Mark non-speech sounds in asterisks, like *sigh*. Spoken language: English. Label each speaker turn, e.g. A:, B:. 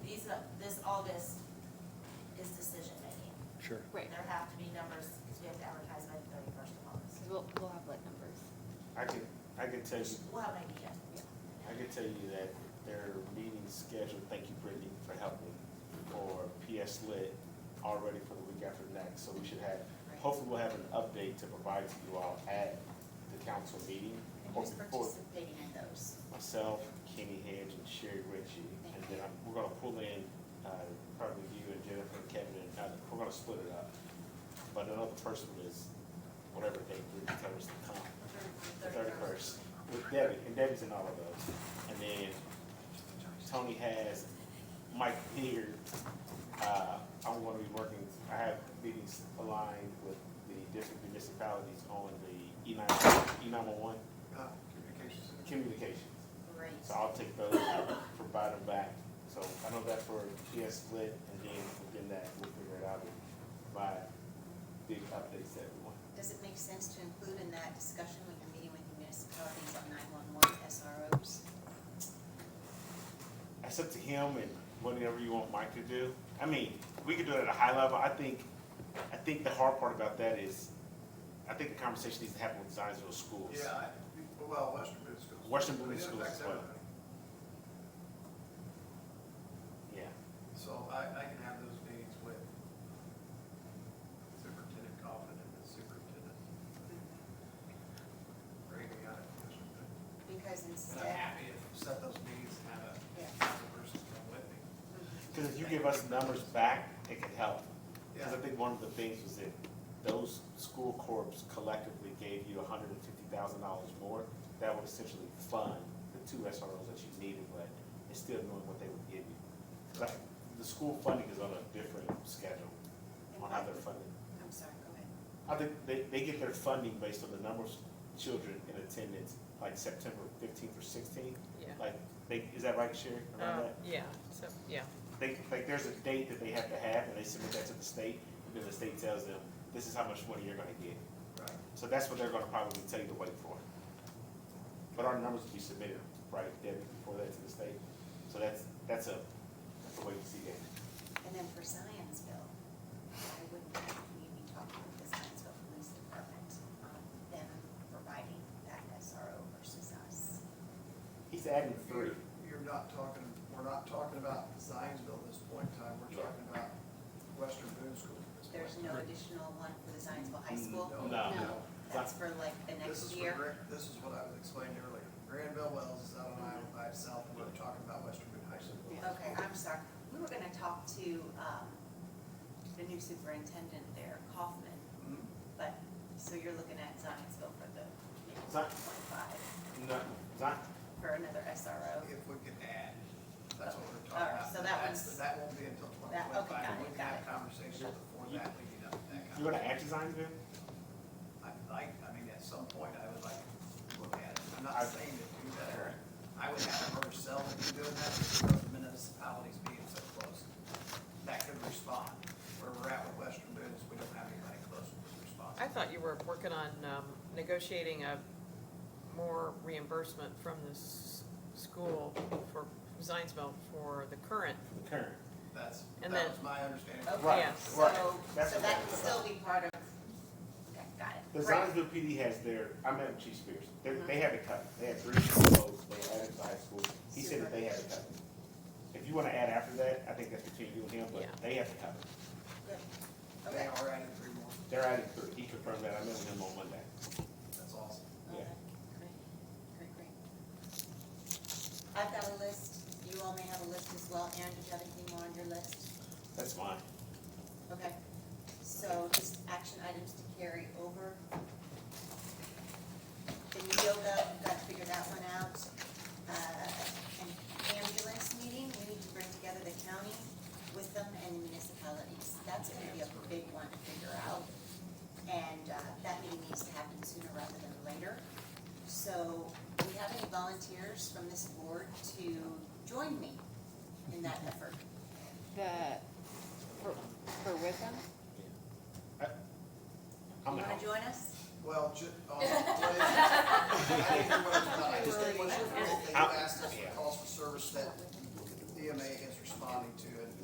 A: August is decision making.
B: Sure.
C: Right,
A: There have to be numbers, because we have to advertise by the thirty-first of August.
C: because we'll, we'll have like numbers.
D: I could, I could tell you,
A: We'll have an idea.
D: I could tell you that their meeting scheduled, thank you Brittany for helping, or PS Lit already for the week after next, so we should have, hopefully we'll have an update to provide to you all at the council meeting.
A: And
D: or
A: who's
D: before.
A: participating in those?
D: Myself, Kenny Hedge, and Sherry Ritchie, and then I'm, we're gonna pull in, uh, probably you and Jennifer and Kevin and another, we're gonna split it up. But another person is, whatever they, we determine to come. the thirty-first with Debbie, and Debbie's in all of those. And then Tony has Mike here. Uh, I'm gonna be working, I have meetings aligned with the different municipalities on the E nine, E nine one one
E: Uh, Communications.
D: communications.
A: Great.
D: So I'll take those and provide them back. So I know that for PS split, and then within that, we'll figure it out by big updates that we want.
F: Does it make sense to include in that discussion when you're meeting with the municipalities on nine-one-one SROs?
D: That's up to him and whatever you want Mike to do. I mean, we could do it at a high level. I think, I think the hard part about that is, I think the conversation needs to happen with Zionsville schools.
E: Yeah, I- well, Western Boone Schools.
D: Western Boone
E: It
D: Schools
E: affects
D: as well.
E: everybody.
D: Yeah.
E: So I, I can have those meetings with Superintendent Coffin and the Superintendent. Brady on it.
F: Because
E: And I'm
F: instead,
E: happy if you set those meetings and have
F: Yeah.
E: a couple persons come with me.
D: Because if you give us numbers back, it can help. Because I
E: Yeah,
D: think one of the things was that those school corps collectively gave you hundred and fifty thousand dollars more. That would essentially fund the two SROs that you needed, but it's still knowing what they would give you. Like, the school funding is on a different schedule on how they're funded.
F: Mm-hmm. I'm sorry, go ahead.
D: I think they, they get their funding based on the number of children in attendance, like September fifteenth or sixteenth?
G: Yeah.
D: Like, they, is that right, Sherry, around
G: Uh,
D: that?
G: Yeah, so, yeah.
D: They, like, there's a date that they have to have, and they submit that to the state, and then the state tells them, this is how much money you're gonna get.
E: right.
D: So that's what they're gonna probably tell you to wait for. But our numbers will be submitted, right, Debbie, before that to the state? So that's, that's a, that's a way to see that.
F: And then for Zionsville, why wouldn't we be talking with the Zionsville Police Department on them providing that SRO versus us?
D: He's adding three.
E: You're, you're not talking, we're not talking about Zionsville at this point in time, we're
D: Yeah.
E: talking about Western Boone Schools. at this point
F: There's
E: in
F: no
E: time.
F: additional one for the Zionsville High School?
E: Mm, No.
D: No.
F: That's for like the
E: This is for
F: next year?
E: Gran- This is what I was explaining earlier. Granville Wells is out on Island by itself, and we're talking about Western Boone High School.
F: Okay, I'm sorry. We were gonna talk to, um, the new superintendent there, Kaufman,
E: Mhm.
F: but, so you're looking at Zionsville for the maybe
D: Zion-
F: 1.5
D: No, Zion,
F: for another SRO?
E: If we could add, that's what we're talking
F: All right,
E: about.
F: so that
E: That's-
F: one's-
E: That won't be until twenty
F: That- okay,
E: twenty-five.
F: got it,
E: We can
F: got
E: have
F: it.
E: conversations before that, leading up to that
D: you gonna
E: conversation.
D: add to Zionsville?
E: I'd like, I mean, at some point, I would like to look at it. I'm not
D: I-
E: saying to do that. I would have her herself be doing that because of the municipalities being so close. That could respond. Where we're at with Western Boone is we don't have anybody close with response.
G: I thought you were working on um, negotiating a more reimbursement from the s- school for Zionsville for the current.
D: The current.
E: That's, that
G: And
E: was
G: then- Oh,
E: my understanding.
F: Okay,
D: Right,
G: Yeah.
F: so,
D: right. That's
F: so
D: what
F: that
D: I'm talking
F: can still be part of, okay, got it.
D: The
F: Great. Mm-hmm.
D: Zionsville PD has their, I met with Chief Spears, they, they have it covered, they had three schools, they added to high school, he said that they have it covered. If you wanna add after that, I think that's between you and him, but
G: Yeah.
D: they have it covered,
E: They are adding three more.
D: they're adding three, he confirmed that, I met with him on Monday.
E: That's awesome.
D: Yeah.
F: Okay, Great, great, great. I've got a list. You all may have a list as well. Aaron, did you have anything more on your list?
D: That's mine.
F: Okay, so just action items to carry over. The yoga, we've got to figure that one out. Uh, An ambulance meeting, we need to bring together the county with them and the municipalities. That's gonna be a big one to figure out. And uh, that meeting needs to happen sooner rather than later. So do we have any volunteers from this board to join me in that effort?
C: The, for, for Wickham?
D: I'm
F: You wanna
D: out.
F: join us?
E: Well,
G: *laughs*
E: ju, oh, what is it? I didn't hear what it was about. I just didn't want you to forget that you asked us for calls for service that EMA E is responding to